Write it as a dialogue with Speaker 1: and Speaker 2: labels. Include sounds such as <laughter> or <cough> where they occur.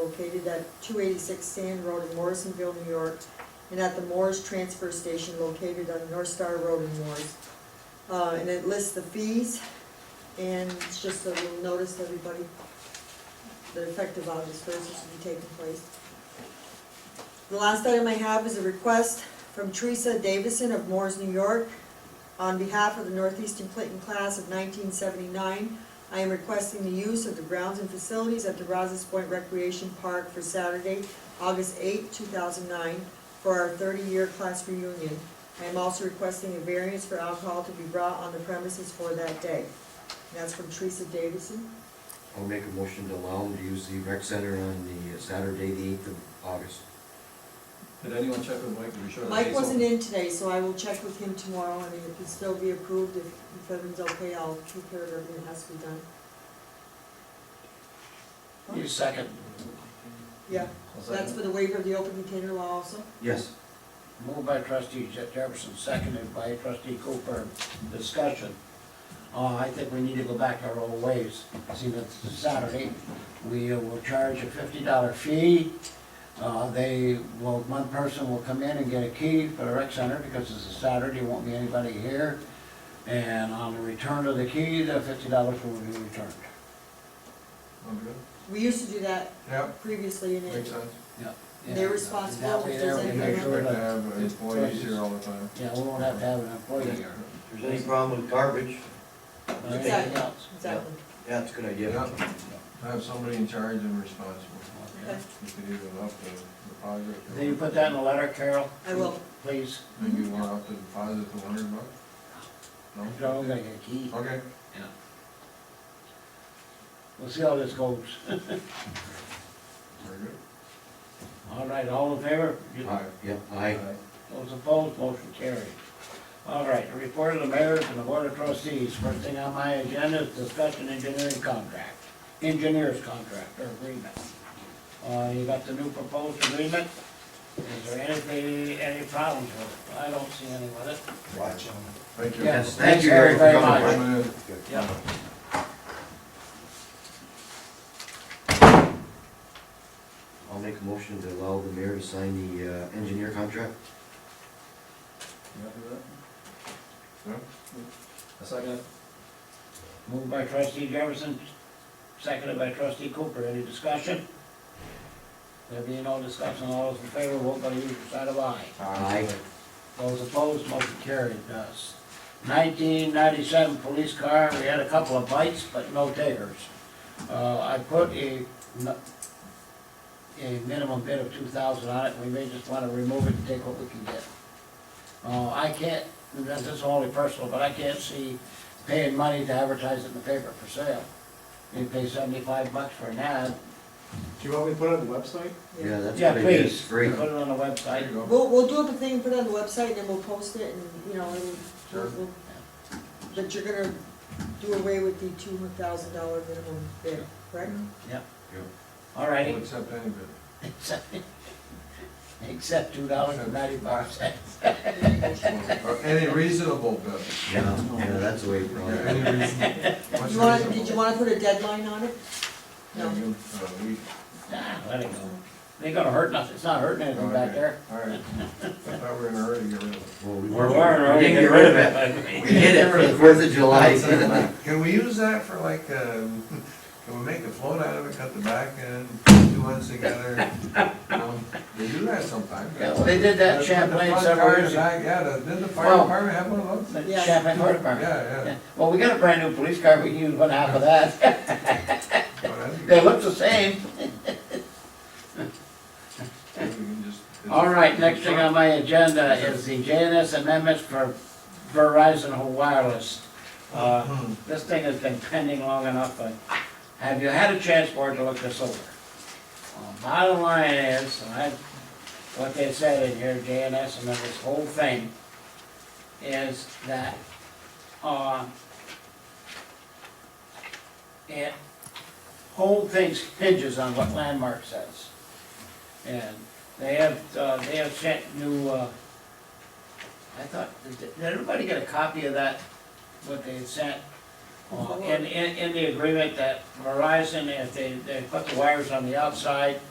Speaker 1: located at two eighty-six Sand Road in Morrisonville, New York, and at the Moore's Transfer Station located on North Star Road in Moore's. Uh, and it lists the fees, and it's just a little notice to everybody, that effective August first, this will be taking place. The last item I have is a request from Teresa Davison of Moore's, New York, on behalf of the Northeastern Clinton class of nineteen seventy-nine, I am requesting the use of the grounds and facilities at the Rouse's Point Recreation Park for Saturday, August eighth, two thousand nine, for our thirty-year class reunion. I am also requesting a variance for alcohol to be brought on the premises for that day. And That's from Teresa Davison.
Speaker 2: I'll make a motion to allow them to use the rec center on the Saturday, the eighth of August.
Speaker 3: Did anyone check with Mike to be sure? that
Speaker 1: Mike
Speaker 3: he's
Speaker 1: wasn't
Speaker 3: open?
Speaker 1: in today, so I will check with him tomorrow, and if it still be approved, if if everything's okay, I'll take care of everything that has to be done.
Speaker 4: You second.
Speaker 1: Yeah,
Speaker 3: I'll
Speaker 1: so that's
Speaker 3: second
Speaker 1: for the waiver of the open container law also?
Speaker 2: Yes.
Speaker 4: Moved by trustee Je- Jefferson, seconded by trustee Cooper. Discussion. Uh, I think we need to go back to our old ways. See, that's Saturday. We will charge a fifty dollar fee. Uh, they will, one person will come in and get a key for the rec center because it's a Saturday, won't be anybody here. And on the return of the key, the fifty dollars will be returned.
Speaker 3: I'm good.
Speaker 1: We used to do that
Speaker 5: Yep,
Speaker 1: previously, and
Speaker 5: makes
Speaker 1: it,
Speaker 5: sense.
Speaker 1: They're responsible
Speaker 4: That way
Speaker 1: if there's
Speaker 4: there we
Speaker 5: And
Speaker 1: anything
Speaker 4: make
Speaker 5: make
Speaker 1: else.
Speaker 4: sure
Speaker 5: sure to have uh, employees
Speaker 4: that-
Speaker 5: here all the time.
Speaker 4: Yeah, we won't have to have an employee here.
Speaker 2: If there's any problem with garbage,
Speaker 4: or Anything else?
Speaker 1: exactly.
Speaker 2: yeah, it's a good idea.
Speaker 5: Yep, have somebody in charge and responsible.
Speaker 1: Okay,
Speaker 5: You could even up the deposit. or-
Speaker 4: Then you put that in the letter, Carol?
Speaker 1: I will.
Speaker 4: Please.
Speaker 5: Maybe we'll have to deposit the hundred bucks? No?
Speaker 4: Joe, we gotta get a key.
Speaker 5: Okay.
Speaker 4: We'll see how this goes.
Speaker 5: Very good.
Speaker 4: All right, all in favor?
Speaker 5: Aye.
Speaker 2: Yep, Uh, aye.
Speaker 5: Aye.
Speaker 4: Those opposed, motion carried. All right, the report of the mayor's and the board of trustees. First thing on my agenda is discussion engineering contract, engineer's contract or agreement. Uh, you got the new proposed agreement? Is there anything, any problems with it? I don't see any with it.
Speaker 2: Watch
Speaker 5: Thank you.
Speaker 4: Yes,
Speaker 2: Thank
Speaker 4: thank
Speaker 2: you,
Speaker 4: you
Speaker 2: Eric, for
Speaker 4: very
Speaker 2: coming.
Speaker 4: much.
Speaker 5: Coming in.
Speaker 4: Yeah.
Speaker 2: I'll make a motion to allow the mayor to sign the uh, engineer contract.
Speaker 3: You happy with
Speaker 5: Yeah.
Speaker 3: that? A second?
Speaker 4: Moved by trustee Jefferson, seconded by trustee Cooper. Any discussion? There being no discussion, all those in favor, vote by the usual side of aye.
Speaker 2: Aye.
Speaker 4: Those opposed, motion carried. Does uh, Nineteen ninety-seven police car, we had a couple of bites, but no takers. Uh, I put a, n- a minimum bid of two thousand on it. We may just wanna remove it and take what we can get. Uh, I can't, that's just only personal, but I can't see paying money to advertise it in the paper for sale. You pay seventy-five bucks for an ad.
Speaker 6: Do you want me to put it on the website?
Speaker 2: Yeah,
Speaker 1: yeah.
Speaker 2: that's a
Speaker 4: Yeah,
Speaker 2: good idea. It's
Speaker 4: please, put
Speaker 2: Free.
Speaker 4: it on the
Speaker 5: There
Speaker 4: website.
Speaker 5: you go.
Speaker 1: We'll, we'll do up a thing, put it on the website, and then we'll post it, and, you know, and we'll,
Speaker 5: Sure.
Speaker 1: we'll- but you're gonna do away with the two thousand dollar minimum bid, correct?
Speaker 4: All righty.
Speaker 5: We'll accept any bid.
Speaker 4: Except two dollars and ninety-five cents.
Speaker 1: <laughs>
Speaker 5: Or Any reasonable bid.
Speaker 2: Yeah, yeah, that's the way it
Speaker 5: Yeah,
Speaker 2: runs.
Speaker 5: Any reasonable.
Speaker 1: <laughs>
Speaker 5: What's
Speaker 1: You wanna,
Speaker 5: reasonable?
Speaker 1: did you wanna put a deadline on it?
Speaker 5: Yeah,
Speaker 1: No.
Speaker 5: you- uh, we- uh,
Speaker 4: Ah, let it go. It Ain't gonna hurt nothing, it's not hurting anything back there.
Speaker 5: All right. I thought we were in a hurry to get rid of it.
Speaker 2: Well, we
Speaker 4: We're
Speaker 2: weren't,
Speaker 4: already
Speaker 2: we didn't
Speaker 4: getting
Speaker 2: get rid of it. We
Speaker 4: it.
Speaker 2: did it for the Fourth of July. <laughs>
Speaker 5: Can we use that for like, um, <laughs> can we make a float out of it, cut the back end, put two ends together? Um, They do that sometimes.
Speaker 4: Yeah, well, they did that
Speaker 5: Put the
Speaker 4: Champlain
Speaker 5: front
Speaker 4: several
Speaker 5: car in
Speaker 4: years
Speaker 5: the back, Yeah, the- didn't the fire
Speaker 4: Well-
Speaker 5: department have one of those?
Speaker 1: Yeah.
Speaker 4: Champagne Fire Department.
Speaker 5: Yeah, yeah.
Speaker 4: Well, we got a brand new police car, we can use one half of that. <laughs>
Speaker 5: Well, that'd be
Speaker 4: They
Speaker 5: good.
Speaker 4: look the same.
Speaker 5: We can just-
Speaker 4: All right, next thing on my agenda is the JNS amendments for Verizon Wireless. Uh,
Speaker 5: Hmm.
Speaker 4: This thing has been pending long enough, but have you had a chance, board, to look this over? Well, Bottom line is, and I, what they said in here, JNS and this whole thing, is that, uh, it, whole thing hinges on what Landmark says. And they have, uh, they have sent new, uh, I thought, did did everybody get a copy of that, what they had sent? Uh, In, in, in the agreement that Verizon, if they, they put the wires on the outside,